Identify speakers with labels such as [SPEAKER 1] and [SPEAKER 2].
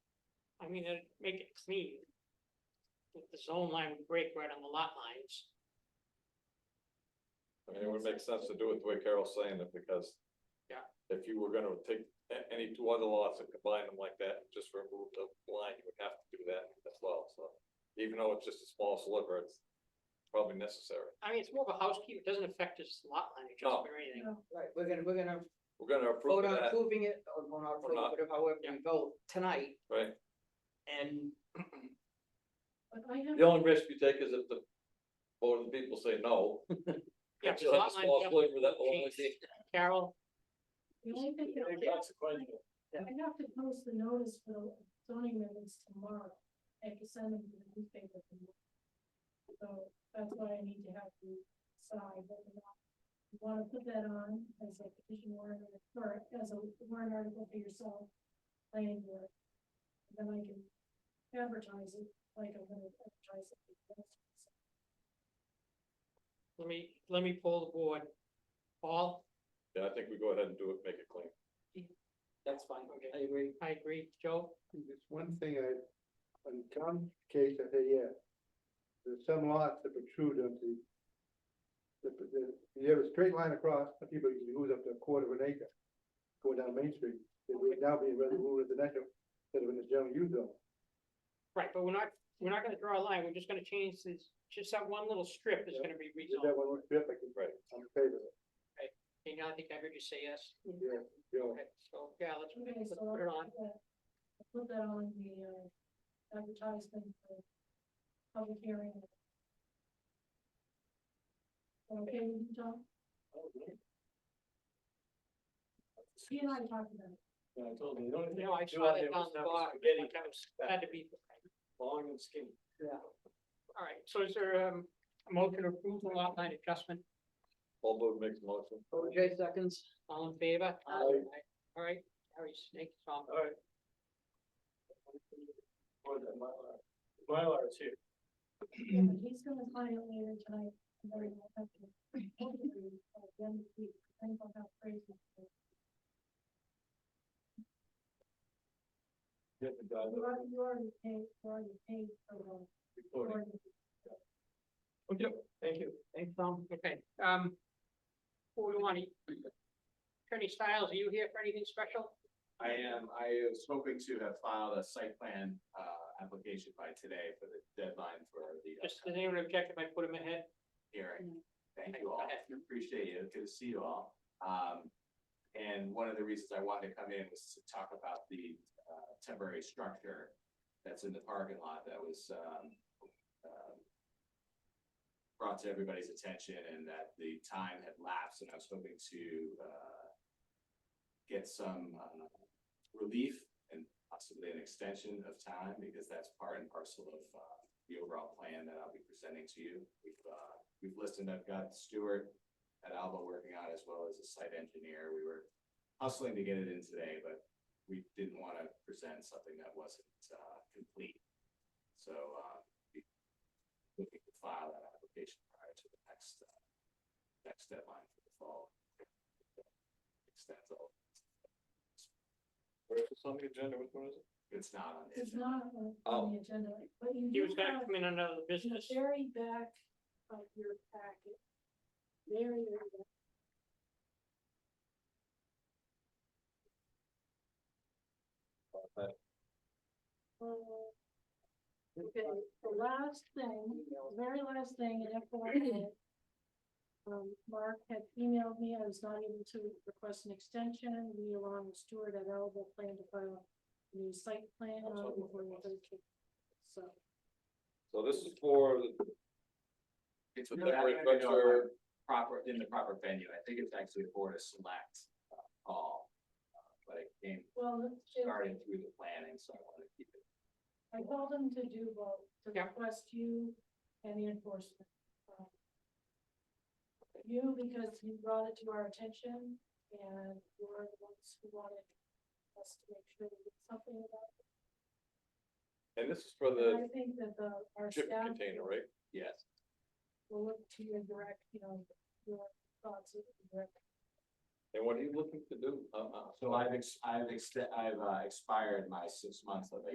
[SPEAKER 1] mean, it'd make it clean. If The zone line would break right on the lot lines.
[SPEAKER 2] I mean, it would make sense to do it the way Carol's saying it, because.
[SPEAKER 1] Yeah.
[SPEAKER 2] If you were gonna take a- any two other lots and combine them like that, and just remove the line, you would have to do that as well, so. Even though it's just a small sliver, it's probably necessary.
[SPEAKER 1] I mean, it's more of a housekeeper, it doesn't affect his lot line adjustment or anything.
[SPEAKER 3] Right, we're gonna, we're gonna
[SPEAKER 2] We're gonna approve
[SPEAKER 3] vote on
[SPEAKER 2] that,
[SPEAKER 3] approving it, or vote on
[SPEAKER 2] Or not.
[SPEAKER 3] approving it, however we vote tonight,
[SPEAKER 2] right?
[SPEAKER 3] and
[SPEAKER 4] But I have,
[SPEAKER 2] The only risk you take is if the, or the people say no.
[SPEAKER 1] Yeah, so
[SPEAKER 2] Just have a
[SPEAKER 1] lot line
[SPEAKER 2] small
[SPEAKER 1] adjustment
[SPEAKER 2] sliver, that will only
[SPEAKER 1] change.
[SPEAKER 2] be-
[SPEAKER 1] Carol,
[SPEAKER 4] the only thing that I have, I have to post the notice for the zoning amendments tomorrow. I have to send them to the newspaper. tomorrow. So that's why I need to have you decide whether or not you wanna put that on as a petition warrant or or as a warrant article for yourself, planning board. And Then I can advertise it like I'm gonna advertise it.
[SPEAKER 1] let me, let me pull the board. Paul,
[SPEAKER 2] Yeah, I think we go ahead and do it, make it clean.
[SPEAKER 3] that's fine, I agree.
[SPEAKER 1] I agree, Joe,
[SPEAKER 5] There's one thing I, on Tom's case, I said, yeah, there's some lots that protrude onto. The, the, you have a straight line across, but people can lose up to a quarter of an acre going down Main Street. It would now be residential, residential, instead of in the general use zone.
[SPEAKER 1] right, but we're not, we're not gonna draw a line, we're just gonna change this, just that one little strip is
[SPEAKER 5] Yeah.
[SPEAKER 1] gonna be
[SPEAKER 5] Is that
[SPEAKER 1] rezoned.
[SPEAKER 5] one more strip, I can,
[SPEAKER 2] Right.
[SPEAKER 5] I'm in favor of it,
[SPEAKER 1] Okay, now I think I heard you say yes,
[SPEAKER 5] yeah, you know,
[SPEAKER 1] okay, so, yeah, let's,
[SPEAKER 4] Okay,
[SPEAKER 1] let's
[SPEAKER 4] so
[SPEAKER 1] put it on,
[SPEAKER 4] I'll Put that on the uh, advertisement for public hearing. Okay, with you, Tom? He and I talked about it.
[SPEAKER 6] Yeah, I told you, you don't,
[SPEAKER 1] no, I
[SPEAKER 6] Do
[SPEAKER 1] saw
[SPEAKER 6] I-
[SPEAKER 1] that
[SPEAKER 6] it
[SPEAKER 1] on
[SPEAKER 6] was
[SPEAKER 1] the
[SPEAKER 6] never
[SPEAKER 1] bar,
[SPEAKER 6] spaghetti.
[SPEAKER 1] like I was, had to be.
[SPEAKER 6] long and skinny.
[SPEAKER 1] All right, so is there um, a motion to approve the lot line adjustment?
[SPEAKER 2] Paul Blue makes a motion.
[SPEAKER 3] OJ seconds,
[SPEAKER 1] All in favor?
[SPEAKER 5] Aye.
[SPEAKER 1] All right, Harry Snake, Tom.
[SPEAKER 6] Or the Mylar. Mylar is here.
[SPEAKER 4] Yeah, but He's gonna sign it later tonight. and then we'll have to- hopefully, by the end of the week, depends on how crazy. it is.
[SPEAKER 6] You have to drive
[SPEAKER 4] You already, you already paid, you already paid for the.
[SPEAKER 6] the recording. Okay, thank you.
[SPEAKER 1] Thanks, Tom. Okay, um, who do we want to? Attorney Styles, are you here for anything special?
[SPEAKER 7] I am, I was hoping to have filed a site plan, uh, application by today for the deadline for the
[SPEAKER 1] Just, does anyone object if I put him ahead?
[SPEAKER 7] hearing. Thank
[SPEAKER 1] Thank
[SPEAKER 7] you all,
[SPEAKER 1] you.
[SPEAKER 7] appreciate you, good to see you all. Um, and one of the reasons I wanted to come in was to talk about the, uh, temporary structure that's in the parking lot that was, um, um, brought to everybody's attention and that the time had lapsed and I was hoping to, uh, get some, uh, relief and possibly an extension of time because that's part and parcel of, uh, the overall plan that I'll be presenting to you. We've, uh, we've listened, I've got Stuart at Alba working on it as well as a site engineer. We were hustling to get it in today, but we didn't want to present something that wasn't, uh, complete. So, uh, we- looking to file that application prior to the next, uh, next deadline for the fall. Extends all,
[SPEAKER 2] Where is this on the agenda? Which one is it?
[SPEAKER 7] it's not on the
[SPEAKER 4] It's
[SPEAKER 7] agenda.
[SPEAKER 4] not on on the agenda, but you
[SPEAKER 1] Oh. He
[SPEAKER 4] do
[SPEAKER 1] was gonna
[SPEAKER 4] have
[SPEAKER 1] come in under other
[SPEAKER 4] in the
[SPEAKER 1] business.
[SPEAKER 4] very back of your packet. Very, very back. Uh, Okay, the last thing, very last thing, and FYI. Um, Mark had emailed me, I was not able to request an extension, we along with Stuart at Elba plan to file a new site plan on
[SPEAKER 2] That's what we
[SPEAKER 4] before the thirteenth. So,
[SPEAKER 2] So this is for the
[SPEAKER 7] It's
[SPEAKER 2] the
[SPEAKER 7] with
[SPEAKER 2] temporary
[SPEAKER 7] the-
[SPEAKER 2] structure.
[SPEAKER 7] proper, in the proper venue. I think it's actually a board of select uh, call. uh, But it came
[SPEAKER 4] well, let's just-
[SPEAKER 7] starting through the planning, so I wanted to keep it.
[SPEAKER 4] I told him to do both, to
[SPEAKER 1] Yeah.
[SPEAKER 4] request you and the enforcement. um, You, because you brought it to our attention, and you're the ones who wanted us to make sure we did something about it.
[SPEAKER 2] And this is for
[SPEAKER 4] And I
[SPEAKER 2] the
[SPEAKER 4] think that the, our
[SPEAKER 2] chip
[SPEAKER 4] staff
[SPEAKER 2] container, right?
[SPEAKER 7] Yes,
[SPEAKER 4] will look to your direct, you know, your thoughts, your direct
[SPEAKER 2] And what are you looking to do? Uh, uh,
[SPEAKER 7] so I've, ex- I've, ext- I've uh, expired my six months of